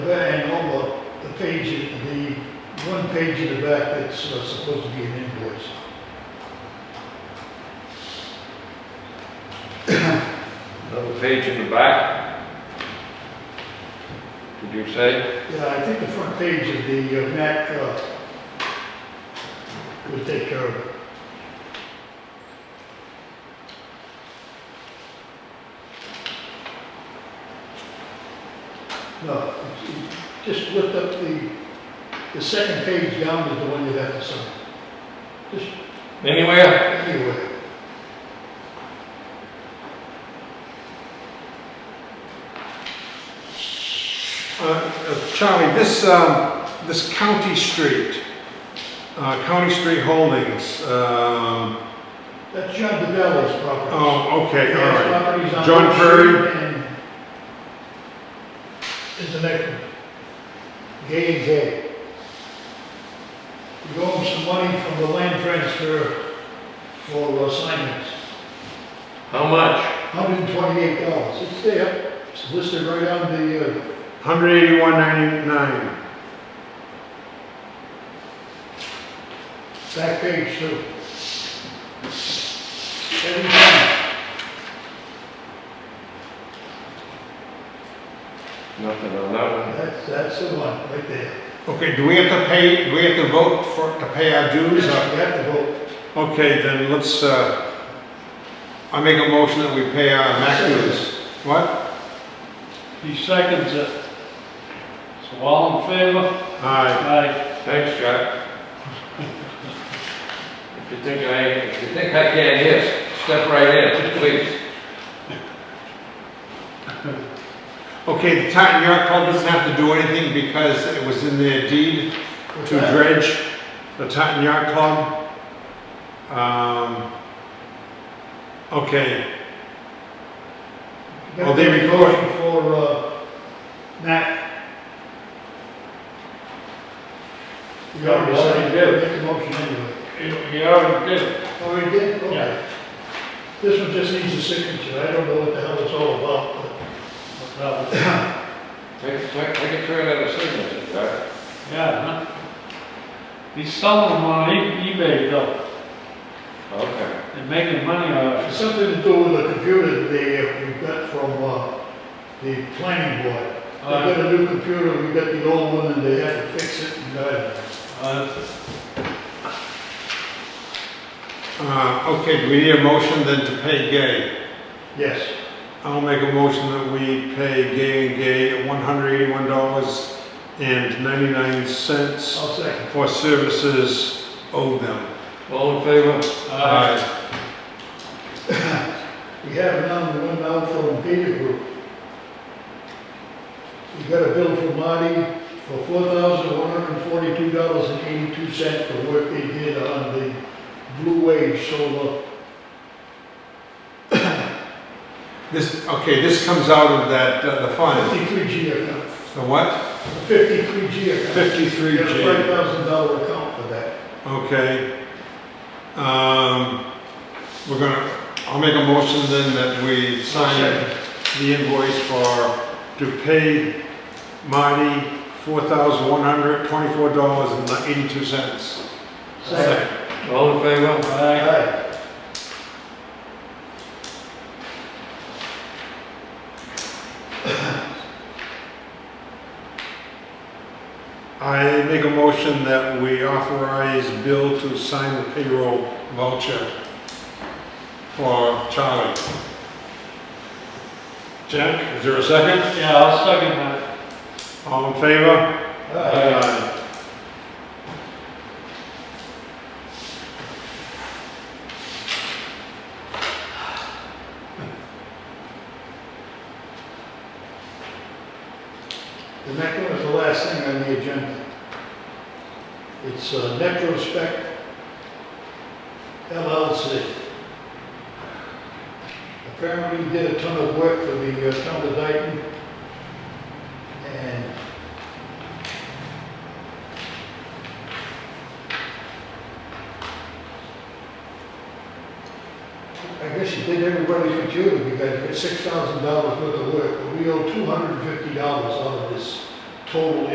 page, at the one page in the back that's uh, supposed to be an invoice. Another page in the back. Did you say? Yeah, I think the front page of the uh, Mac uh, will take care of it. No, it's- just lift up the, the second page down is the one you have to sign. Just Anywhere? anyway. Uh, uh, Charlie, this, um, this County Street, uh, County Street Holdings, um, That's John DeVal's property. oh, okay, all Yeah, right. properties on John Oak Prairie. Street and- Is the next one. Gay and Gay. We owe them some money from the land transfer for assignments, How much? hundred and twenty-eight dollars, it's there, it's listed right on the, uh, Hundred eighty-one ninety-nine. back page too. Every time, Nothing on that one. that's, that's the one, right there. Okay, do we have to pay, do we have to vote for, to pay our You dues? or- have to vote, Okay, then let's, uh, I make a motion that we pay our MAC dues. What? He seconds it. So all in favor? Aye. Aye. Thanks, Jack. If you think I, if you think I can't hear, step right in, please. Okay, the town, your club doesn't have to do anything because it was in their deed? What's to that? dredge the Totten Yacht Club. Um, okay, Got Oh, they the record. motion For, uh, Matt. We already Yeah, we already said, did. make the motion anyway. You you already did it. Already Oh, did? Yeah. Okay. This one just needs a signature, I don't know what the hell it's all about, but That was- Take, take, take a turn at the signature, Jack. Yeah, huh? He's selling them on E- eBay though, Okay. and making money off it's something to do with the computer that we got from, uh, the planning board. it. They Uh, got a new computer, we got the old one, and they had to fix it and guide it. uh, uh, okay, do we need a motion then to pay Gay? Yes, I'll make a motion that we pay Gay and Gay one hundred eighty-one dollars and ninety-nine cents I'll second. for services owed them. All in favor? uh, We have now, we went out from Peter Group. We got a bill from Marty for four thousand one hundred and forty-two dollars and eighty-two cents for work they did on the Blue Wave solar. This, okay, this comes out of that, uh, the fund, Fifty-three G account, the what? fifty-three G account. Fifty-three We got a five G, thousand dollar account for that. okay. Um, we're gonna, I'll make a motion then that we sign the invoice for, to pay Marty four thousand one hundred twenty-four dollars and eighty-two cents. Second. All in favor? uh, Aye. I make a motion that we authorize Bill to sign the payroll voucher for Charlie. Jack, is there a second? yeah, I'll second that. All in favor? Aye. The next one is the last thing on the agenda. It's uh, Necrospect LLC. Apparently did a ton of work for the uh, town of Dayton. And I guess you did everybody's computer, you guys got six thousand dollars worth of work, but we owe two hundred and fifty dollars out of this total